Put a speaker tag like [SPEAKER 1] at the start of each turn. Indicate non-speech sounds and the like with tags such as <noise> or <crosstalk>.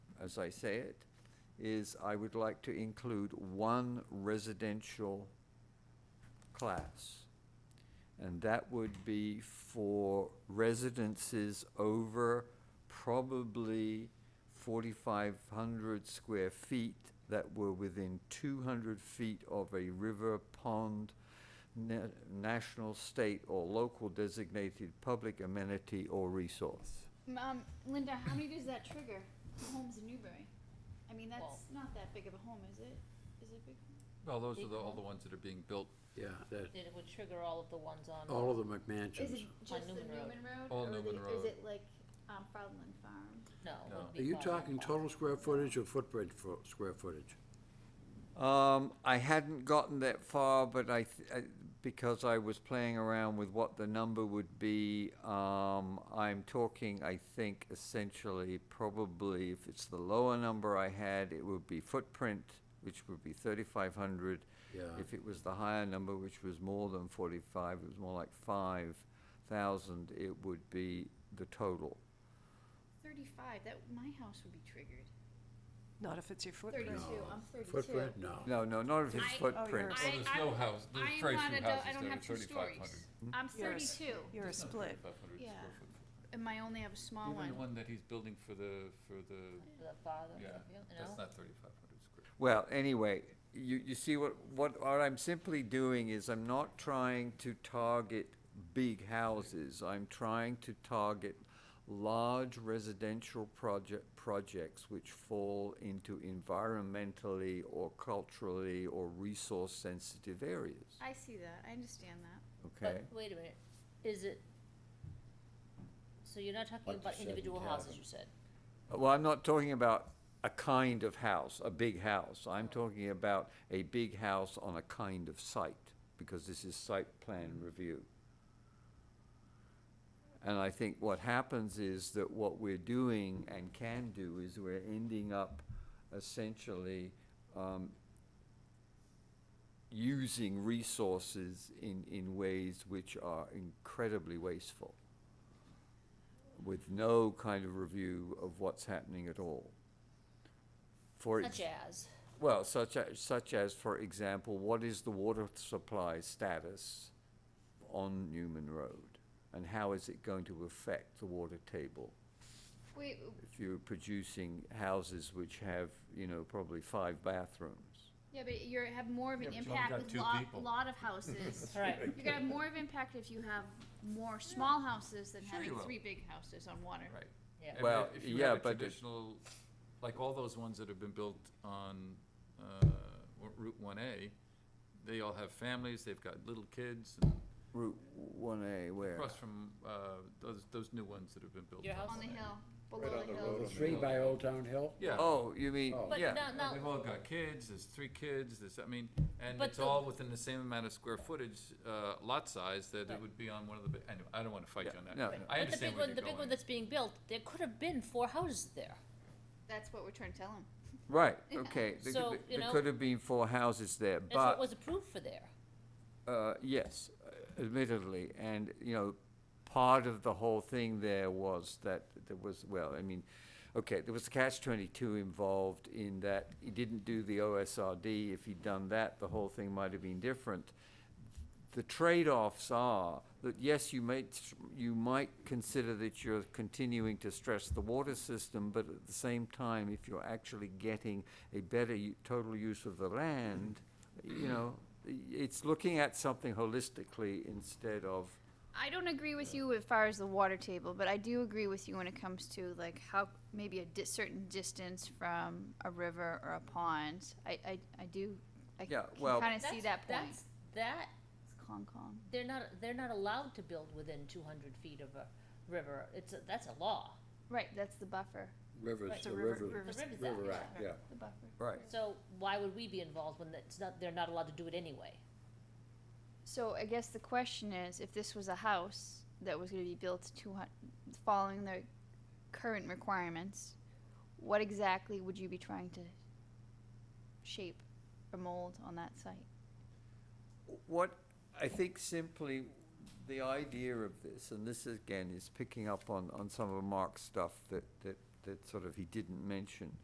[SPEAKER 1] as I say it, is I would like to include one residential class. And that would be for residences over probably forty-five hundred square feet that were within two hundred feet of a river, pond, na- national, state, or local designated public amenity or resource.
[SPEAKER 2] Um, Linda, how many does that trigger for homes in Newbury? I mean, that's
[SPEAKER 3] Well-
[SPEAKER 2] not that big of a home, is it? Is it big?
[SPEAKER 4] Well, those are the, all
[SPEAKER 3] Equal.
[SPEAKER 4] the ones that are being built,
[SPEAKER 5] Yeah, that,
[SPEAKER 3] That it would trigger all of the ones on.
[SPEAKER 5] all of the
[SPEAKER 2] Is it
[SPEAKER 5] McMansions.
[SPEAKER 2] just the
[SPEAKER 3] Newman Road.
[SPEAKER 2] Newman Road?
[SPEAKER 4] All
[SPEAKER 2] or the-
[SPEAKER 4] Newman
[SPEAKER 2] Is
[SPEAKER 4] Road.
[SPEAKER 2] it like, um, Farland Farm?
[SPEAKER 3] No. it
[SPEAKER 4] No.
[SPEAKER 3] would be
[SPEAKER 5] Are you
[SPEAKER 3] farther
[SPEAKER 5] talking
[SPEAKER 3] back.
[SPEAKER 5] total square footage or footprint for square footage?
[SPEAKER 1] Um, I hadn't gotten that far, but I, th- I, because I was playing around with what the number would be, um, I'm talking, I think, essentially, probably, if it's the lower number I had, it would be footprint, which would be thirty-five hundred.
[SPEAKER 5] Yeah.
[SPEAKER 1] If it was the higher number, which was more than forty-five, it was more like five thousand, it would be the total.
[SPEAKER 2] Thirty-five, that, my house would be triggered.
[SPEAKER 6] Not if it's your footprint.
[SPEAKER 2] Thirty-two,
[SPEAKER 5] No.
[SPEAKER 2] I'm thirty-two.
[SPEAKER 5] Footprint, no.
[SPEAKER 1] No, no, not if it's
[SPEAKER 2] I- Oh,
[SPEAKER 6] you're
[SPEAKER 1] footprint.
[SPEAKER 4] Well, there's no house- there's
[SPEAKER 2] I am
[SPEAKER 4] very
[SPEAKER 2] not
[SPEAKER 4] few
[SPEAKER 2] a dou-
[SPEAKER 4] houses
[SPEAKER 2] I don't
[SPEAKER 4] that are
[SPEAKER 2] have two
[SPEAKER 4] 3,500.
[SPEAKER 2] stories. I'm
[SPEAKER 6] You're a s-
[SPEAKER 2] thirty-two,
[SPEAKER 6] You're a split.
[SPEAKER 2] Yeah. and I only have a small
[SPEAKER 4] Even the
[SPEAKER 2] one.
[SPEAKER 4] one that he's building for the, for the,
[SPEAKER 3] The farther,
[SPEAKER 4] yeah,
[SPEAKER 3] up here,
[SPEAKER 4] that's
[SPEAKER 3] no?
[SPEAKER 4] not thirty-five hundred square.
[SPEAKER 1] Well, anyway, you, you see what, what, what I'm simply doing is I'm not trying to target big houses. I'm trying to target large residential project, projects which fall into environmentally or culturally or resource sensitive areas,
[SPEAKER 2] I see that, I understand that.
[SPEAKER 1] okay?
[SPEAKER 3] But wait a minute, is it, so you're not talking
[SPEAKER 5] Like
[SPEAKER 3] about
[SPEAKER 5] you said,
[SPEAKER 3] individual
[SPEAKER 5] you
[SPEAKER 3] houses,
[SPEAKER 5] haven't.
[SPEAKER 3] you said?
[SPEAKER 1] Well, I'm not talking about a kind of house, a big house. I'm talking about a big house on a kind of site, because this is site plan review. And I think what happens is that what we're doing and can do is we're ending up essentially um, using resources in, in ways which are incredibly wasteful with no kind of review of what's happening at all. For
[SPEAKER 3] Such
[SPEAKER 1] ex-
[SPEAKER 3] as,
[SPEAKER 1] well, such as, such as, for example, what is the water supply status on Newman Road? And how is it going to affect the water table?
[SPEAKER 2] Wait,
[SPEAKER 1] If you're producing houses which have, you know, probably five bathrooms.
[SPEAKER 2] yeah, but you're, have more of
[SPEAKER 4] Yeah,
[SPEAKER 2] an
[SPEAKER 4] but you've only
[SPEAKER 2] impact
[SPEAKER 4] got
[SPEAKER 2] with
[SPEAKER 4] two
[SPEAKER 2] lot,
[SPEAKER 4] people.
[SPEAKER 2] lot of houses.
[SPEAKER 4] <laughs>
[SPEAKER 3] right,
[SPEAKER 2] You're gonna have more of impact if you have more small houses than
[SPEAKER 4] Sure you
[SPEAKER 2] having
[SPEAKER 4] will.
[SPEAKER 2] three big houses on water.
[SPEAKER 4] Right.
[SPEAKER 3] yeah.
[SPEAKER 4] And
[SPEAKER 1] Well,
[SPEAKER 4] if you
[SPEAKER 1] yeah,
[SPEAKER 4] have a
[SPEAKER 1] but it-
[SPEAKER 4] Traditional, like all those ones that have been built on, uh, Route one A, they all have families, they've got little kids, and
[SPEAKER 1] Route one A where?
[SPEAKER 4] across from, uh, those, those new ones that have been built.
[SPEAKER 3] Your house?
[SPEAKER 2] On the hill, below the hill.
[SPEAKER 5] Three by Old Town Hill?
[SPEAKER 4] Yeah.
[SPEAKER 1] Oh, you mean,
[SPEAKER 5] Oh.
[SPEAKER 3] But
[SPEAKER 1] yeah.
[SPEAKER 3] no, no.
[SPEAKER 4] They've all got kids, there's three kids, there's, I mean, and
[SPEAKER 3] But
[SPEAKER 4] it's
[SPEAKER 3] the-
[SPEAKER 4] all within the same amount of square footage, uh, lot size that
[SPEAKER 3] Right.
[SPEAKER 4] it would be on one of the, bi- anyway, I don't wanna fight you
[SPEAKER 1] Yeah,
[SPEAKER 4] on
[SPEAKER 1] no,
[SPEAKER 4] that.
[SPEAKER 1] Right. no.
[SPEAKER 4] I
[SPEAKER 3] But the
[SPEAKER 4] understand
[SPEAKER 3] big one,
[SPEAKER 4] where you're
[SPEAKER 3] the big one
[SPEAKER 4] going.
[SPEAKER 3] that's being built, there could have been four houses there.
[SPEAKER 2] That's what we're trying to tell him.
[SPEAKER 1] Right,
[SPEAKER 3] <laughs>
[SPEAKER 1] okay. There
[SPEAKER 3] So,
[SPEAKER 1] could-
[SPEAKER 3] you
[SPEAKER 1] There
[SPEAKER 3] know-
[SPEAKER 1] could have been four houses there, but.
[SPEAKER 3] That's what was approved for there.
[SPEAKER 1] Uh, yes, admittedly, and, you know, part of the whole thing there was that there was, well, I mean, okay, there was a catch twenty-two involved in that he didn't do the OSRD. If he'd done that, the whole thing might have been different. The trade-offs are that, yes, you may, you might consider that you're continuing to stress the water system, but at the same time, if you're actually getting a better u- total use of the land, you know, i- it's looking at something holistically instead of,
[SPEAKER 2] I don't agree with you as far as the water table, but I do agree with you when it comes to like how maybe a di- certain distance from a river or a pond. I, I, I do, I
[SPEAKER 1] Yeah,
[SPEAKER 2] can
[SPEAKER 1] well-
[SPEAKER 2] kind of see
[SPEAKER 3] That's-
[SPEAKER 2] that point.
[SPEAKER 3] That's, that
[SPEAKER 2] It's Hong Kong.
[SPEAKER 3] they're not they're not allowed to build within 200 feet of a river. It's a, that's a law.
[SPEAKER 2] Right, that's the buffer,
[SPEAKER 5] Rivers,
[SPEAKER 3] Right.
[SPEAKER 5] the
[SPEAKER 6] The river,
[SPEAKER 5] river,
[SPEAKER 3] The
[SPEAKER 6] rivers-
[SPEAKER 3] river's out.
[SPEAKER 5] river act, yeah.
[SPEAKER 2] the buffer.
[SPEAKER 1] right.
[SPEAKER 3] So why would we be involved when it's not they're not allowed to do it anyway?
[SPEAKER 2] So I guess the question is, if this was a house that was gonna be built two hun- following the current requirements, what exactly would you be trying to shape or mold on that site?
[SPEAKER 1] what I think simply the idea of this, and this again is picking up on, on some of Mark's stuff that, that, that sort of he didn't mention,